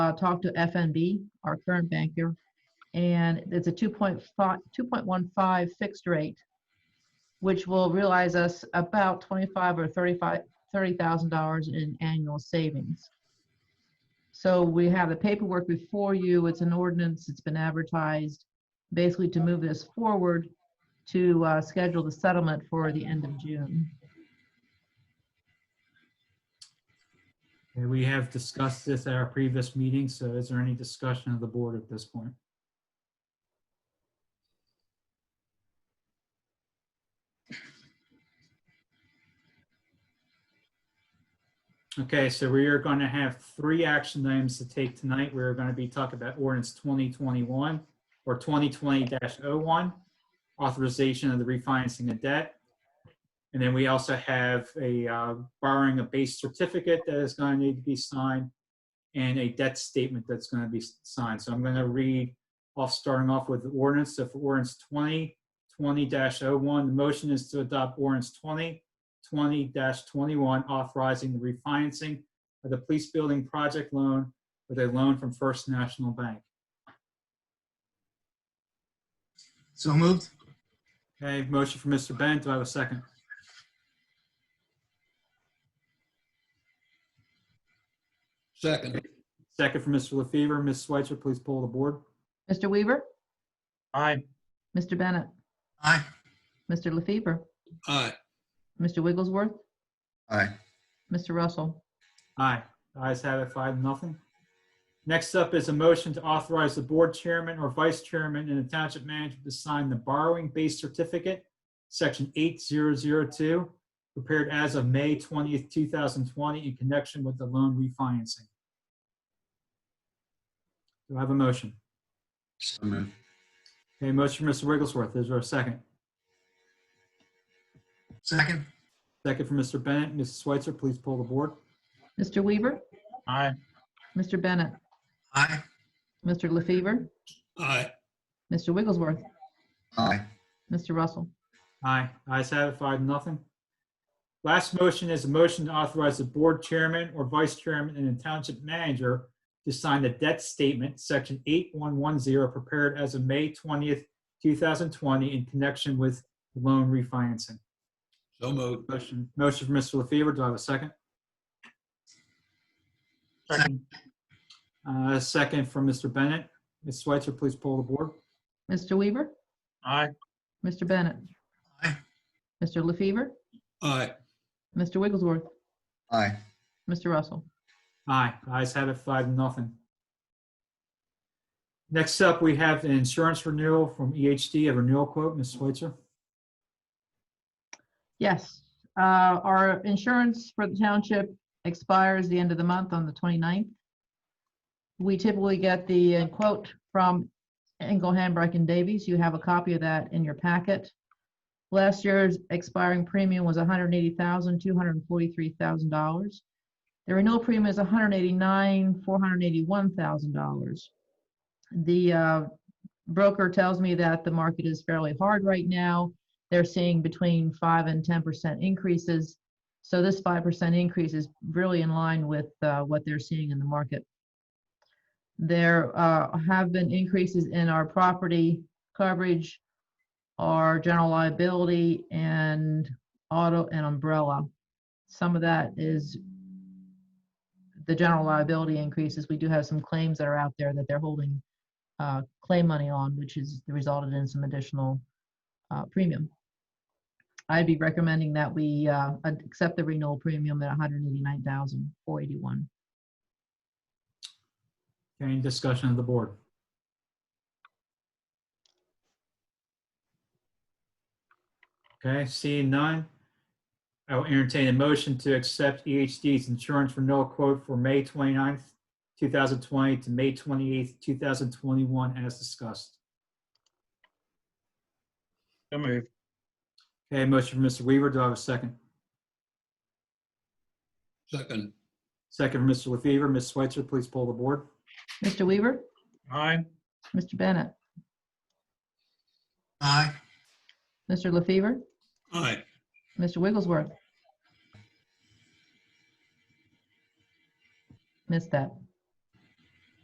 uh, talked to FNB, our current banker, and it's a 2.5, 2.15 fixed rate, which will realize us about 25 or 35, $30,000 in annual savings. So we have the paperwork before you. It's an ordinance. It's been advertised, basically to move this forward to uh, schedule the settlement for the end of June. Okay, we have discussed this at our previous meeting, so is there any discussion of the board at this point? Okay, so we are going to have three action items to take tonight. We're going to be talking about ordinance 2021 or 2020-01, authorization of the refinancing of debt. And then we also have a uh, borrowing a base certificate that is going to need to be signed and a debt statement that's going to be signed. So I'm going to read off, starting off with the ordinance. So for ordinance 20, 20-01, the motion is to adopt ordinance 20, 20-21, authorizing the refinancing of the police building project loan with a loan from First National Bank. So moved. Okay, motion for Mr. Bent. Do I have a second? Second, Second for Mr. LaFever. Ms. Switzer, please pull the board. Mr. Weaver? Aye. Mr. Bennett? Aye. Mr. LaFever? aye, Mr. Wigglesworth? Aye. Mr. Russell? Aye. Ayes have it, five, nothing. Next up is a motion to authorize the board chairman or vice chairman and the township manager to sign the borrowing base certificate, section 8002, prepared as of May 20th, 2020, in connection with the loan refinancing. Do I have a motion? So moved. Okay, motion for Mr. Wigglesworth. Is there a second? Second. Second for Mr. Bennett. Mrs. Switzer, please pull the board. Mr. Weaver? Aye. Mr. Bennett? Aye. Mr. LaFever? aye, Mr. Wigglesworth? Aye. Mr. Russell? Aye. Ayes have it, five, nothing. Last motion is a motion to authorize the board chairman or vice chairman and the township manager to sign the debt statement, section 8110, prepared as of May 20th, 2020, in connection with loan refinancing. so moved, Motion, motion for Mr. LaFever. Do I have a second? Second. Uh, Second from Mr. Bennett. Ms. Switzer, please pull the board. Mr. Weaver? Aye. Mr. Bennett? Aye. Mr. LaFever? aye, Mr. Wigglesworth? Aye. Mr. Russell? Aye, ayes have it, five, nothing. Next up, we have an insurance renewal from EHD, a renewal quote, Ms. Switzer. Yes, uh, our insurance for the township expires the end of the month on the 29th. We typically get the uh, quote from Engel, Hambrick, and Davies. You have a copy of that in your packet. Last year's expiring premium was $180,243,000. The renewal premium is $189,481,000. The uh, broker tells me that the market is fairly hard right now they're seeing between five and ten percent increases. So this five percent increase is really in line with uh, what they're seeing in the market. There uh, have been increases in our property coverage, our general liability, and auto and umbrella. Some of that is the general liability increases. We do have some claims that are out there that they're holding uh, claim money on, which has resulted in some additional uh, premium. I'd be recommending that we uh, ad- accept the renewal premium at $189,481. Any discussion of the board? Okay, seeing none. I will entertain a motion to accept EHD's insurance renewal quote for May 29th, 2020 to May 28th, 2021, as discussed. So moved. Okay, motion for Mr. Weaver. Do I have a second? second, Second for Mr. LaFever. Ms. Switzer, please pull the board. Mr. Weaver? Aye. Mr. Bennett? Aye. Mr. LaFever? aye, Mr. Wigglesworth? Missed that.